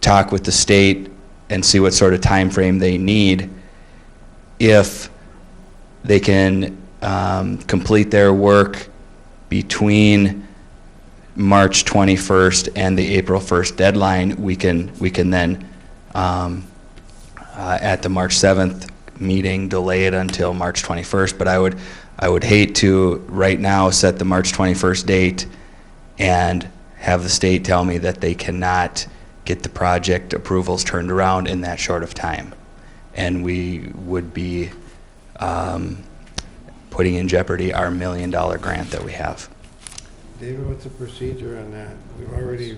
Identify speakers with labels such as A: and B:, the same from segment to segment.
A: talk with the state and see what sort of timeframe they need if they can um, complete their work between March 21st and the April 1st deadline, we can, we can then, um, uh, at the March 7th meeting, delay it until March 21st. But I would, I would hate to, right now, set the March 21st date and have the state tell me that they cannot get the project approvals turned around in that short of time. And we would be um, putting in jeopardy our million-dollar grant that we have.
B: David, what's the procedure on that? We've already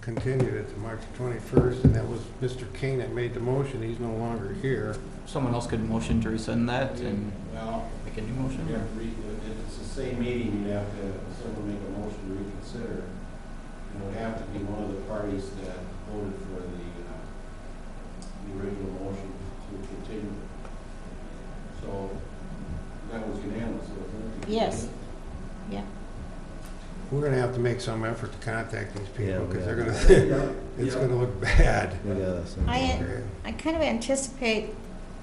B: continued it to March 21st, and that was Mr. King that made the motion. He's no longer here.
C: Someone else could motion to rescind that and
D: Well,
C: make a new
D: you
C: motion?
D: have to re, if it's the same meeting, you have to, someone make a motion to reconsider. And it would have to be one of the parties that voted for the, uh, the original motion to continue. So, that was unanimous, wasn't it?
E: Yes.
B: We're going to have to make some effort to contact these
F: Yeah,
B: people,
F: we
B: because they're
F: are.
B: going to,
D: Yeah.
B: it's going to look bad.
F: We got us.
E: I-
B: Okay.
E: I kind of anticipate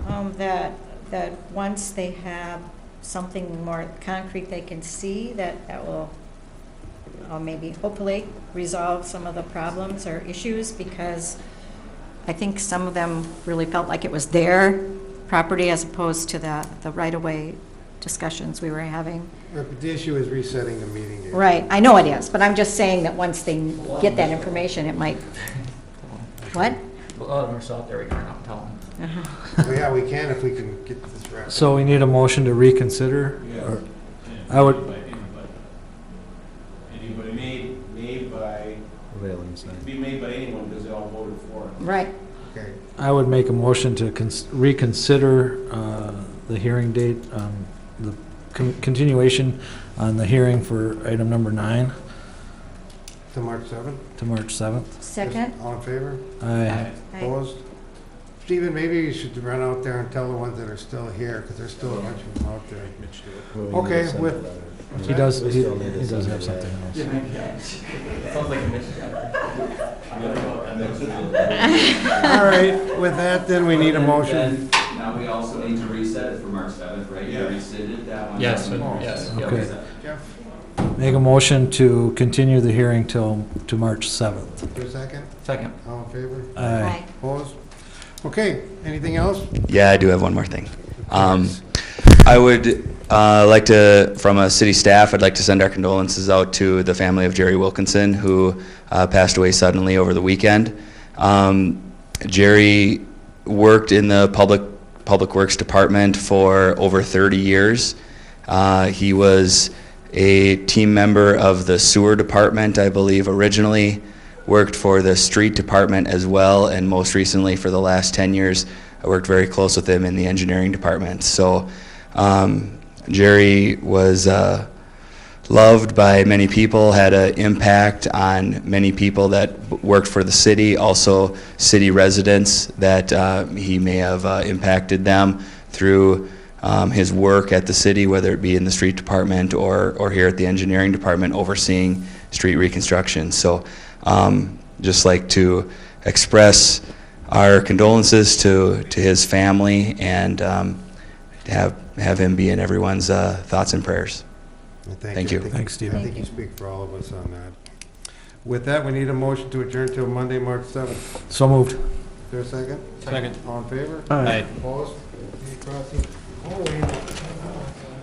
E: um, that, that once they have something more concrete they can see, that, that will uh, maybe hopefully resolve some of the problems or issues, because I think some of them really felt like it was their property as opposed to the, the right-of-way discussions we were having.
B: But The issue is resetting the meeting date.
E: Right, I know it is, but I'm just saying that once they get that information, it might, what?
C: Well, uh, we're still out there, we can run out and tell them.
B: Well, Yeah, we can if we can get this right.
G: So we need a motion to reconsider?
D: Yeah.
G: I would-
D: Anybody made, made by,
F: Prevailing
D: it could
F: sign.
D: be made by anyone because they all voted for it.
E: Right,
B: Okay.
G: I would make a motion to cons- reconsider uh, the hearing date, um, the con- continuation on the hearing for item number nine
B: To March 7th?
G: to March 7th.
E: second?
B: All in favor?
G: I
E: I-
B: Opposed? Stephen, maybe you should run out there and tell the ones that are still here, because there's still a bunch of them out there.
F: Well, we need
B: Okay,
F: to send
B: with-
F: a letter.
G: He does,
F: We
G: he he
F: still need to
G: does
F: send
G: have
F: a
G: something
F: letter.
G: else.
C: Sounds like a mission.
B: All right, with that, then we need a motion.
H: Then- then Now we also need to reset it for March seventh, right? You
D: Yeah.
H: rescinded that one.
C: Yes,
B: Oh.
C: yes. yeah.
G: Okay.
B: Jeff,
G: Make a motion to continue the hearing till, to March 7th.
B: for a second,
C: Second.
B: all in favor?
G: Aye.
E: Aye.
B: Opposed? Okay, anything else?
A: Yeah, I do have one more thing. Um, I would uh, like to, from a city staff, I'd like to send our condolences out to the family of Jerry Wilkinson, who uh, passed away suddenly over the weekend. Um, Jerry worked in the public public works department for over 30 years. Uh, he was a team member of the sewer department, I believe, originally. Worked for the street department as well, and most recently for the last 10 years, I worked very close with him in the engineering department. So um, Jerry was uh, loved by many people, had an impact on many people that b- worked for the city, also city residents that uh, he may have uh, impacted them through um, his work at the city, whether it be in the street department or, or here at the engineering department overseeing street reconstruction. So um, just like to express our condolences to, to his family and um, have, have him be in everyone's uh, thoughts and prayers. Thank you.
B: I think-
G: Thanks, Stephen.
B: I think you speak for all of us on that. With that, we need a motion to adjourn till Monday, March 7th.
G: So moved.
B: Is there a second?
C: Second.
B: All in favor?
G: Aye.
B: Opposed? Any crossing? Oh, wait.